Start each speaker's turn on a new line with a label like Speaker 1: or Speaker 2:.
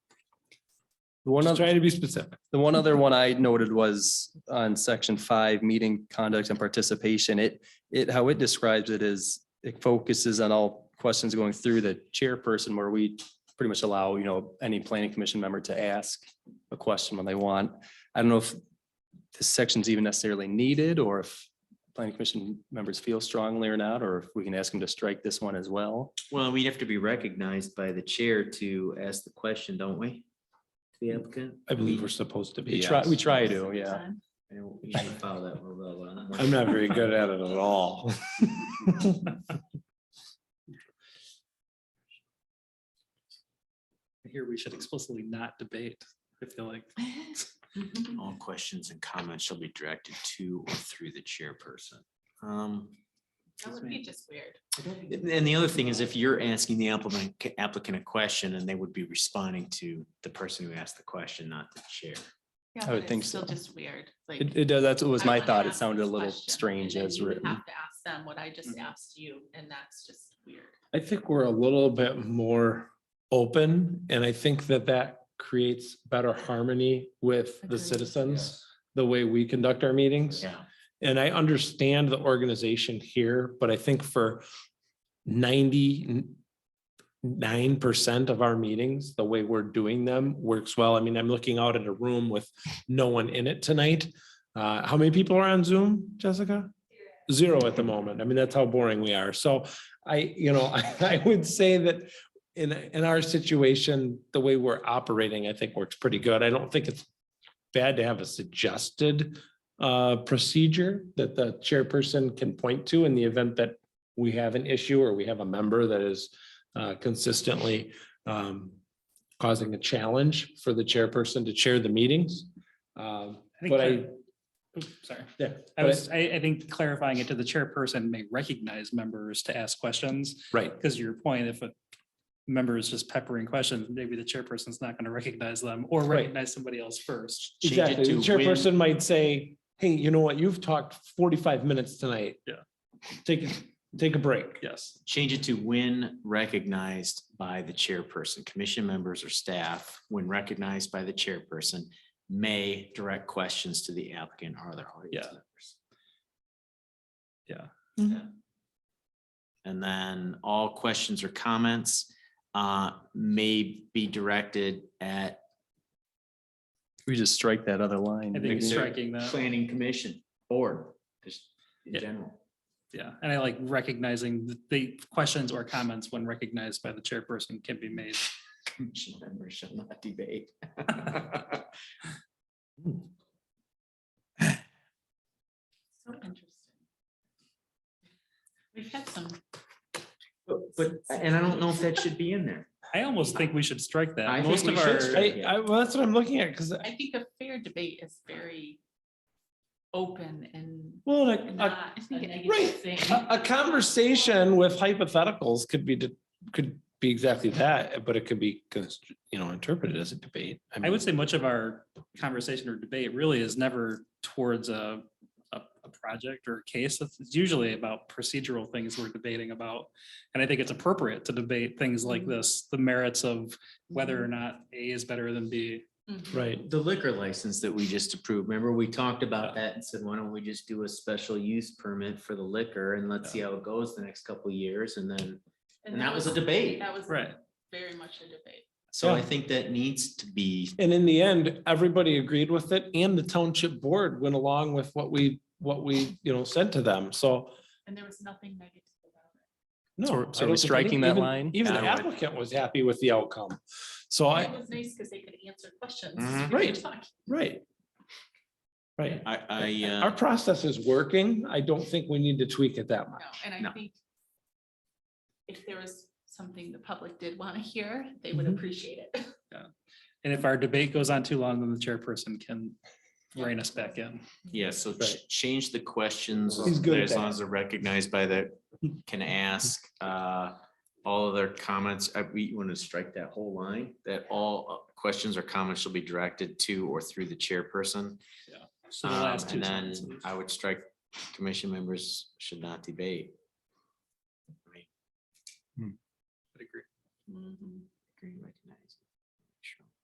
Speaker 1: The one
Speaker 2: Just
Speaker 1: other,
Speaker 2: try to be specific.
Speaker 1: the one other one I noted was on section five, meeting conduct and participation. It, it, how it describes it is it focuses on all questions going through the chairperson where we pretty much allow, you know, any planning commission member to ask a question when they want. I don't know if this section's even necessarily needed or if planning commission members feel strongly or not, or if we can ask them to strike this one as well.
Speaker 3: Well, we have to be recognized by the chair to ask the question, don't we? To The applicant?
Speaker 2: Mm, I believe we're supposed to be.
Speaker 1: We try, we
Speaker 2: yes.
Speaker 1: try to, yeah.
Speaker 3: I don't- we should follow that real well, uh,
Speaker 2: I'm not very good at it at all.
Speaker 4: Here, we should explicitly not debate, I feel like.
Speaker 5: Mm-hmm.
Speaker 3: All questions and comments shall be directed to or through the chairperson. Um,
Speaker 5: That would be just weird.
Speaker 3: And and the other thing is if you're asking the applicant, applicant a question and they would be responding to the person who asked the question, not the chair.
Speaker 5: Yeah,
Speaker 1: I
Speaker 5: but
Speaker 1: would
Speaker 5: it's
Speaker 1: think
Speaker 5: Still
Speaker 1: so.
Speaker 5: just weird, like.
Speaker 1: It, it does, that's what was
Speaker 5: I
Speaker 1: my
Speaker 5: wanna
Speaker 1: thought. It
Speaker 5: ask
Speaker 1: sounded a
Speaker 5: this
Speaker 1: little
Speaker 5: question,
Speaker 1: strange
Speaker 5: and then
Speaker 1: as
Speaker 5: you would
Speaker 1: written. Mm-hmm.
Speaker 5: Have to ask them what I just asked you, and that's just weird.
Speaker 2: I think we're a little bit more open and I think that that creates better harmony with the
Speaker 5: Agreed.
Speaker 2: citizens, the way we conduct our meetings.
Speaker 3: Yeah.
Speaker 2: And I understand the organization here, but I think for ninety-nine percent of our meetings, the way we're doing them works well. I mean, I'm looking out at a room with no one in it tonight. Uh, how many people are on Zoom, Jessica? Zero at the moment. I mean, that's how boring we are. So I, you know, I would say that in, in our situation, the way we're operating, I think works pretty good. I don't think it's bad to have a suggested uh, procedure that the chairperson can point to in the event that we have an issue or we have a member that is uh, consistently um, causing a challenge for the chairperson to chair the meetings. Um,
Speaker 4: think
Speaker 2: But I,
Speaker 4: clar- Oops, Sorry,
Speaker 2: yeah,
Speaker 4: I
Speaker 2: but-
Speaker 4: was, I, I think clarifying it to the chairperson may recognize members to ask questions,
Speaker 2: right,
Speaker 4: because your point, if a member is just peppering questions, maybe the chairperson's not going to recognize them or
Speaker 2: Right.
Speaker 4: recognize somebody else first.
Speaker 3: Change it
Speaker 2: exactly. The
Speaker 3: to when-
Speaker 2: chairperson might say, hey, you know what? You've talked forty-five minutes tonight.
Speaker 4: Yeah.
Speaker 2: Take, a- take a break.
Speaker 4: Yes.
Speaker 3: Change it to when recognized by the chairperson, commission members or staff, when recognized by the chairperson, may direct questions to the applicant or their audience
Speaker 4: Yeah.
Speaker 3: members.
Speaker 4: Yeah.
Speaker 3: Yeah. And then all questions or comments uh, may be directed at
Speaker 1: We just strike that other line.
Speaker 4: I think
Speaker 3: Maybe they're
Speaker 4: striking that,
Speaker 3: planning commission board, just in
Speaker 4: Yeah.
Speaker 3: general.
Speaker 4: yeah, and I like recognizing the- the questions or comments when recognized by the chairperson can be made.
Speaker 3: Commission members shall not debate.
Speaker 5: So interesting. We've had some.
Speaker 3: But, but- and I don't know if that should be in there.
Speaker 4: I almost think we should strike
Speaker 3: I
Speaker 4: that.
Speaker 3: think
Speaker 4: Most
Speaker 3: we
Speaker 4: of
Speaker 3: should
Speaker 4: our.
Speaker 3: strike
Speaker 2: I, I, well, that's what I'm looking at, because,
Speaker 5: I think a fair debate is very open and
Speaker 2: well, like, a
Speaker 5: not a
Speaker 2: right.
Speaker 5: negative thing.
Speaker 2: A, a conversation with hypotheticals could be, de- could be exactly that, but it could be, const- you know, interpreted as a debate.
Speaker 4: I
Speaker 2: mean,
Speaker 4: would say much of our conversation or debate really is never towards a, a, a project or a case. It's it's usually about procedural things we're debating about. And I think it's appropriate to debate things like this, the merits of whether or not A is better than B.
Speaker 5: Mhm.
Speaker 2: Right,
Speaker 3: The liquor license that we just approved, remember, we talked about that and said, why don't we just do a special use permit for the liquor and let's see how it goes the next couple of years and then. And that was a debate.
Speaker 5: That was
Speaker 4: Right.
Speaker 5: very much a debate.
Speaker 3: So I
Speaker 2: Yeah.
Speaker 3: think that needs to be,
Speaker 2: and in the end, everybody agreed with it, and the township board went along with what we, what we, you know, said to them, so.
Speaker 5: And there was nothing negative about it.
Speaker 2: No.
Speaker 1: So we're-
Speaker 2: I
Speaker 1: so we're
Speaker 2: don't think
Speaker 1: striking
Speaker 2: any-
Speaker 1: that
Speaker 2: even-
Speaker 1: line?
Speaker 2: Even the
Speaker 3: Yeah, I would.
Speaker 2: applicant was happy with the outcome, so
Speaker 5: And
Speaker 2: I,
Speaker 5: It was nice because they could answer questions.
Speaker 3: Mhm.
Speaker 5: We were
Speaker 2: Right.
Speaker 5: talking-
Speaker 2: right. Right,
Speaker 3: I, I,
Speaker 2: our
Speaker 3: uh,
Speaker 2: process is working, I don't think we need to tweak it that much.
Speaker 5: No, and I
Speaker 3: No.
Speaker 5: think if there was something the public did want to hear, they would appreciate it.
Speaker 4: And if our debate goes on too long, then the chairperson can rein us back in.
Speaker 3: yeah, so ch-
Speaker 2: Right.
Speaker 3: change the questions,
Speaker 2: He's good at
Speaker 3: as
Speaker 2: that.
Speaker 3: long as they're recognized by the, can ask, uh, all of their comments, I, we want to strike that whole line, that all uh, questions or comments shall be directed to or through the chairperson.
Speaker 4: So the
Speaker 3: Um,
Speaker 4: last two
Speaker 3: And then
Speaker 4: sentences.
Speaker 3: I would strike, commission members should not debate. I mean,
Speaker 5: Mhm.
Speaker 3: Mm-hmm. agree, recognize.